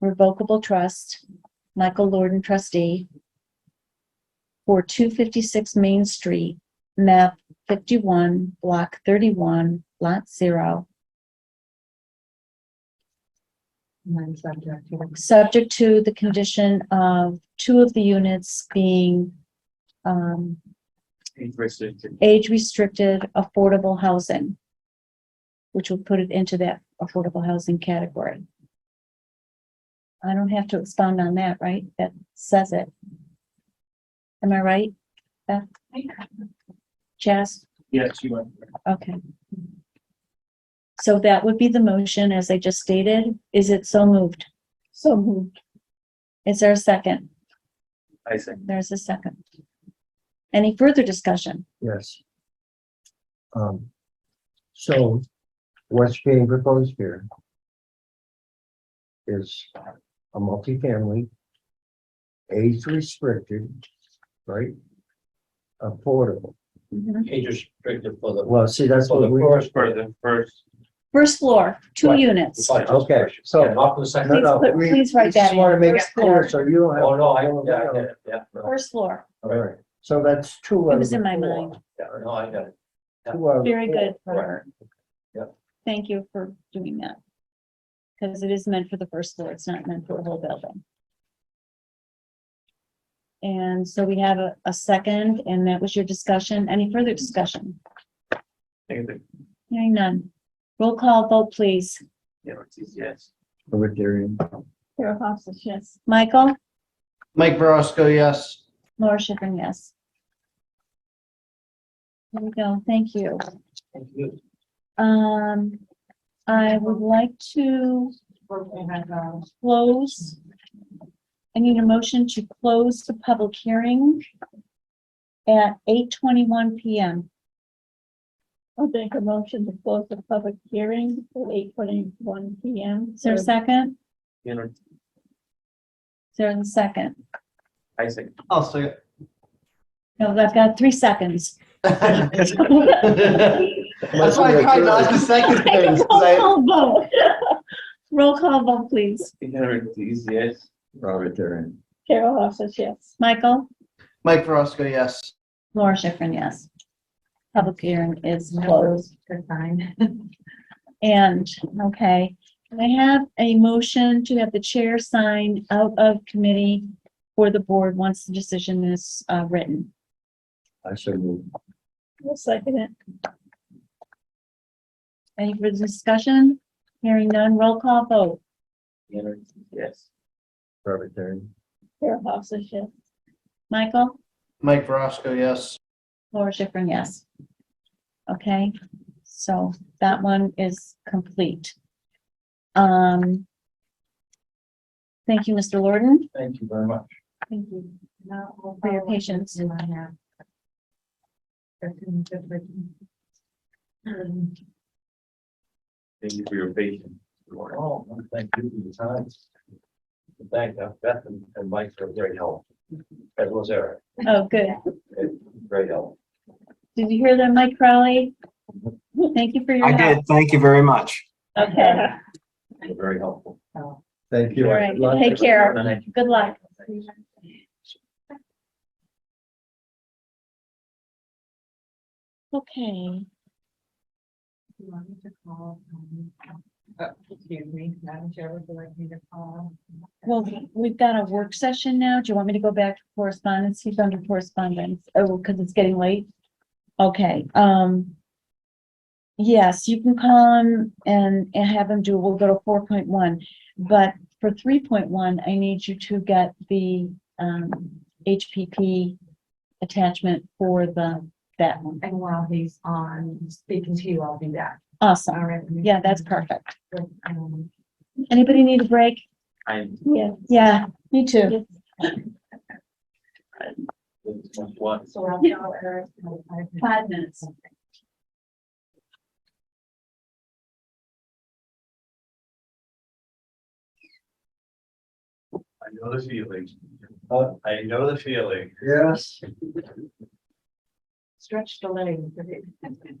revocable trust, Michael Lorden trustee, for two fifty-six Main Street, map fifty-one, block thirty-one, lot zero, And then subject to the- subject to the condition of two of the units being um, Interesting. age-restricted affordable housing, which will put it into that affordable housing category. I don't have to expound on that, right? That says it. Am I right? Beth? Jess? Yes, you are. Okay. So that would be the motion as I just stated. Is it so moved? So moved. Is there a second? I see. There's a second. Any further discussion? Yes. Um, so what's being proposed here is a multifamily, age restricted, right? Affordable. Mm-hmm. Age restricted for the, Well, see, that's for the what we. first, for the first. First floor, two Right. units. Okay, so- Yeah, Not for the No, second. no, Please put- we- please write we that just wanna in. make it First clear, floor. so you don't have. Oh, no, I, don't yeah, I have- get it, yeah. no. First floor. All right, so that's two. It out was of in the my four. mind. Yeah, no, I got it. Two out of the Very four. good for Right. her. Yep. Thank you for doing that. Because it is meant for the first floor. It's not meant for the whole building. And so we have a, a second, and that was your discussion. Any further discussion? Take it. Hearing none. Roll call vote, please. Yeah, it's easy, Yes. Libertarian. Sarah Hobson, yes. Michael? Mike Verosco, yes. Laura Schiffern, yes. There we go. Thank you. Thank you. Um, I would like to we had, um, close. I need a motion to close the public hearing at eight twenty-one PM. I'll make a motion to close the public hearing at eight twenty-one P M. Is there a second? You know, Is there a second? I see. I'll say No, I've got three seconds. it. That's Must why be I a tried good- not to second Roll things. 'cause I- call vote. Roll call vote, please. You know, it's easy, yes. Robert Darian. Carol Hofstas, yes. Michael? Mike Verosco, yes. Laura Schiffern, yes. Public hearing is closed. close, good sign. And, okay, Can I have a motion to have the chair sign out of committee for the board once the decision is uh, written. I should move. I'll second it. Any further discussion? Hearing none, roll call vote. You know, it's easy, Yes. Robert Darian. Carol Hofstas, yes. Michael? Mike Verosco, yes. Laura Schiffern, yes. Okay, so that one is complete. Um, thank you, Mr. Lorden. Thank you very much. Thank you. Now we'll For your follow up with uh, patience. you on that. That's in good written. Um, Thank you for your patience. Oh, well, thank you for your time. Thank uh, Beth and and Mike for great help. As was Eric, Oh, good. great help. Did you hear that, Mike Crowley? Thank you for your I help. did. Thank you very much. Okay, You're very helpful. so, Thank you. All right, take care. Good luck. okay. do you want me to call, um, uh, Excuse me, Madam Chair, would you like me to call? Well, we've got a work session now. Do you want me to go back to correspondence? He's under correspondence. Oh, because it's getting late. Okay, um. Yes, you can call him and, and have him do, we'll go to four point one, but for three point one, I need you to get the, um, HPP attachment for the, that one. And while he's on speaking to you, I'll do that. All Awesome. right. Yeah, that's perfect. Um, Anybody need a break? I'm. Yes. Yeah, me too. One. So I'll call Eric. Five minutes. I know the feeling. I know the feeling. Yes. Stretch the legs.